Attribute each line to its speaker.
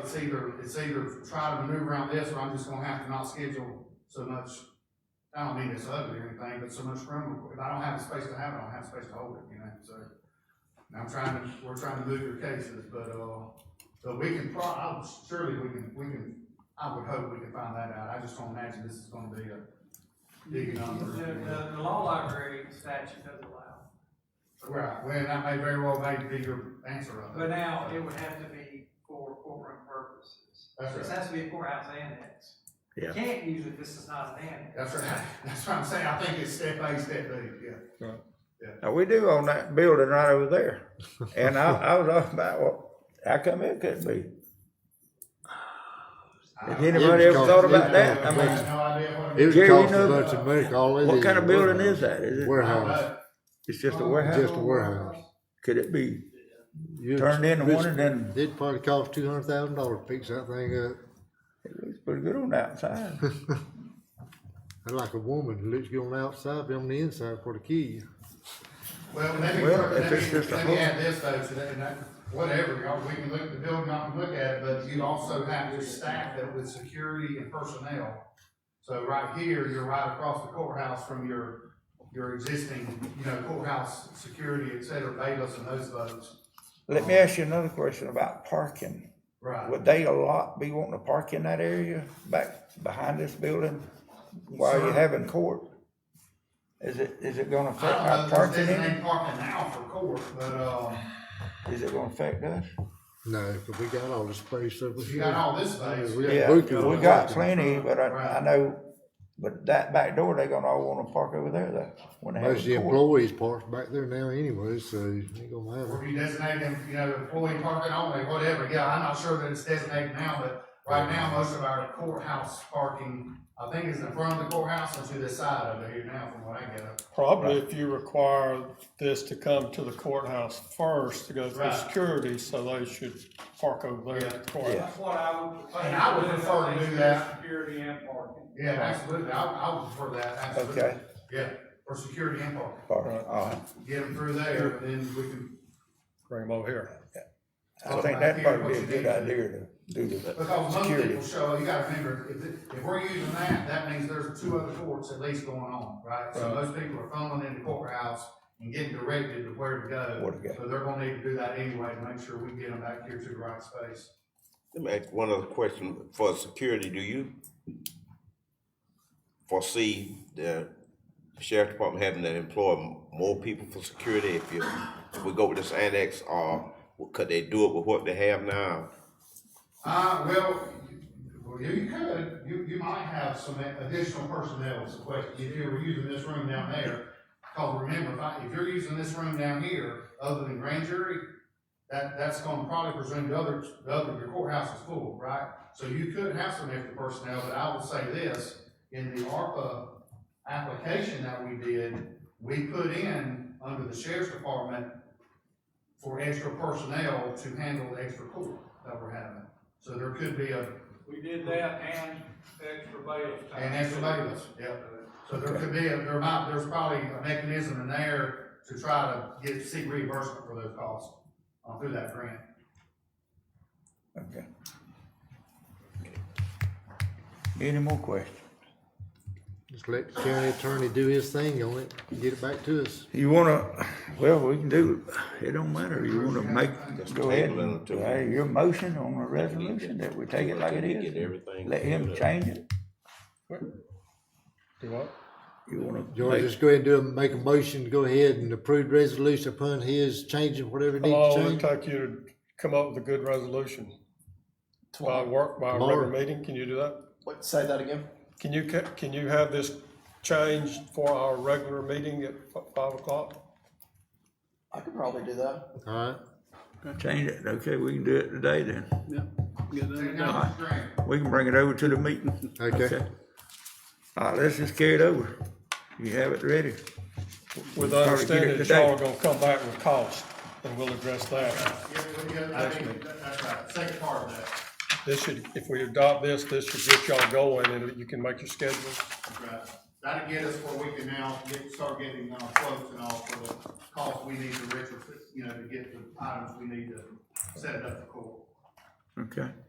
Speaker 1: it's either, it's either try to maneuver around this, or I'm just gonna have to not schedule so much, I don't mean it's ugly or anything, but so much room, if I don't have the space to have it, I don't have space to hold it, you know, so. And I'm trying to, we're trying to move your cases, but, uh, but we can pro, I would- surely we can, we can, I would hope we can find that out, I just don't imagine this is gonna be a big
Speaker 2: The,
Speaker 1: number.
Speaker 2: the, the law library statute doesn't allow.
Speaker 1: Right, well, that may very well may be your answer of
Speaker 2: But
Speaker 1: it.
Speaker 2: now, it would have to be for courtroom purposes.
Speaker 1: That's
Speaker 2: This
Speaker 1: right,
Speaker 2: has to be a courthouse annex. You
Speaker 3: Yeah.
Speaker 2: Can't use it, this is not an annex.
Speaker 1: that's right, that's what I'm saying, I think it's step A, step B, yeah.
Speaker 3: Now, we do own that building right over there. And I, I was all about, well, how come it couldn't be? Has anybody ever thought about that? I mean,
Speaker 1: no idea what.
Speaker 4: It was
Speaker 3: Jerry, you
Speaker 4: costing
Speaker 3: know-
Speaker 4: a bunch of money, all it is.
Speaker 3: what kind of
Speaker 4: is a
Speaker 3: building is that? Is it,
Speaker 4: Warehouse,
Speaker 3: it's just a warehouse?
Speaker 4: just a warehouse.
Speaker 3: Could it be
Speaker 4: You-
Speaker 3: turned into
Speaker 4: this-
Speaker 3: one and then
Speaker 4: It'd probably cost two hundred thousand dollars to fix that thing up.
Speaker 3: it looks pretty good on the outside?
Speaker 4: And like a woman who looks good on the outside, but on the inside for the key.
Speaker 1: Well, let me,
Speaker 3: Well,
Speaker 1: let
Speaker 3: if it's
Speaker 1: me,
Speaker 3: just a
Speaker 1: let me
Speaker 3: hook.
Speaker 1: add this though, to that, and that, whatever, y'all, we can look at the building, I can look at it, but you also have your staff that with security and personnel. So right here, you're right across the courthouse from your, your existing, you know, courthouse security, et cetera, bailiffs and those folks.
Speaker 3: Let me ask you another question about parking.
Speaker 1: Right.
Speaker 3: Would they a lot be wanting to park in that area back behind this building while
Speaker 1: Sure.
Speaker 3: you're having court? Is it, is it gonna affect
Speaker 1: I
Speaker 4: Uh,
Speaker 3: our
Speaker 1: don't know if
Speaker 3: parking?
Speaker 1: there's
Speaker 3: in?
Speaker 1: any parking now for court, but, um,
Speaker 3: Is it gonna affect us?
Speaker 4: No, but we got all the space over
Speaker 1: you
Speaker 4: here.
Speaker 1: got all this space.
Speaker 4: We got
Speaker 3: Yeah,
Speaker 4: booths
Speaker 3: we
Speaker 4: over
Speaker 3: got
Speaker 4: there.
Speaker 3: plenty, but I, I
Speaker 1: Right.
Speaker 3: know, but that back door, they gonna all wanna park over there though. when they have
Speaker 4: Most of the
Speaker 3: a court.
Speaker 4: employees parked back there now anyway, so you ain't gonna have
Speaker 1: Or
Speaker 4: it.
Speaker 1: if you designate them, you know, employee parking only, whatever, yeah, I'm not sure that it's designated now, but right now, most of our courthouse parking, I think is in front of the courthouse and to the side of it now, from what I get.
Speaker 5: Probably if you require this to come to the courthouse first to go through
Speaker 1: Right.
Speaker 5: security, so they should park over there at the courthouse.
Speaker 2: That's what I would.
Speaker 1: And I would prefer to do that.
Speaker 2: Security and parking.
Speaker 1: Yeah, absolutely, I, I would prefer that, absolutely,
Speaker 3: Okay,
Speaker 1: yeah, for security and parking,
Speaker 3: all right, all right.
Speaker 1: get them through there, and then we can,
Speaker 5: Bring them over here.
Speaker 3: Uh, I think that'd probably be a good idea to do the
Speaker 1: because most
Speaker 3: security.
Speaker 1: people show, you gotta remember, if, it- if we're using that, that means there's two other courts at least going on, right? So
Speaker 5: Right.
Speaker 1: most people are fumbling in the courthouse and getting directed to where to go.
Speaker 3: Where to go.
Speaker 1: So they're gonna need to do that anyway, to make sure we get them back here to the right space.
Speaker 6: Let me ask one other question for security. Do you foresee the sheriff department having to employ more people for security if you, if we go with this annex or could they do it with what they have now?
Speaker 1: Uh, well, well, you you could, you, you might have some additional personnel is the question, if you were using this room down there. Cause remember, if I, if you're using this room down here, other than grand jury, that, that's gonna probably presume the other, the other, your courthouse is full, right? So you could have some extra personnel, but I will say this, in the ARPA application that we did, we put in under the sheriff's department for extra personnel to handle the extra court that we're having. So there could be a,
Speaker 2: We did that and extra bailiff time.
Speaker 1: an extra bailiffs, yeah. So there could be, a there might, there's probably a mechanism in there to try to get, seek reimbursement for those costs, uh, through that grant.
Speaker 3: Okay. Any more questions?
Speaker 4: Just let the county attorney do his thing on it, get it back to us.
Speaker 3: You wanna, well, we can do, it don't matter, you wanna make, go ahead,
Speaker 6: table it
Speaker 3: and-
Speaker 6: until-
Speaker 3: hey, your motion on the resolution that we take it like it
Speaker 6: Get
Speaker 3: is.
Speaker 6: everything.
Speaker 3: Let him change it,
Speaker 5: Do what?
Speaker 3: you wanna
Speaker 4: George,
Speaker 3: make,
Speaker 4: just go ahead and do, a- make a motion, to go ahead and approve resolution upon his changing whatever
Speaker 5: How
Speaker 1: Oh,
Speaker 4: needs
Speaker 5: long
Speaker 4: to
Speaker 5: will it
Speaker 4: change.
Speaker 5: take you to come up with a good resolution? By work, by a regular
Speaker 4: Tomorrow.
Speaker 5: meeting, can you do that?
Speaker 7: What, say that again?
Speaker 5: Can you, ca- can you have this changed for our regular meeting at fi- five o'clock?
Speaker 7: I could probably do that.
Speaker 4: All right,
Speaker 3: change it, okay, we can do it today then.
Speaker 1: Technology grant.
Speaker 3: We can bring it over to the meeting.
Speaker 4: okay.
Speaker 3: All right, let's just carry it over, you have it ready. Probably
Speaker 5: With the
Speaker 3: get
Speaker 5: understanding
Speaker 3: it
Speaker 5: that y'all
Speaker 3: today.
Speaker 5: are gonna come back with cost, and we'll address that.
Speaker 1: Yeah, we got- I think that- that's right, second part of that,
Speaker 5: This should, if we adopt this, this should get y'all going, and you can make your schedule.
Speaker 1: that's right. That'll get us where we can now get, start getting, uh, quotes and all for the costs we need to retrofit, you know, to get the items we need to set it up for court.
Speaker 3: Okay,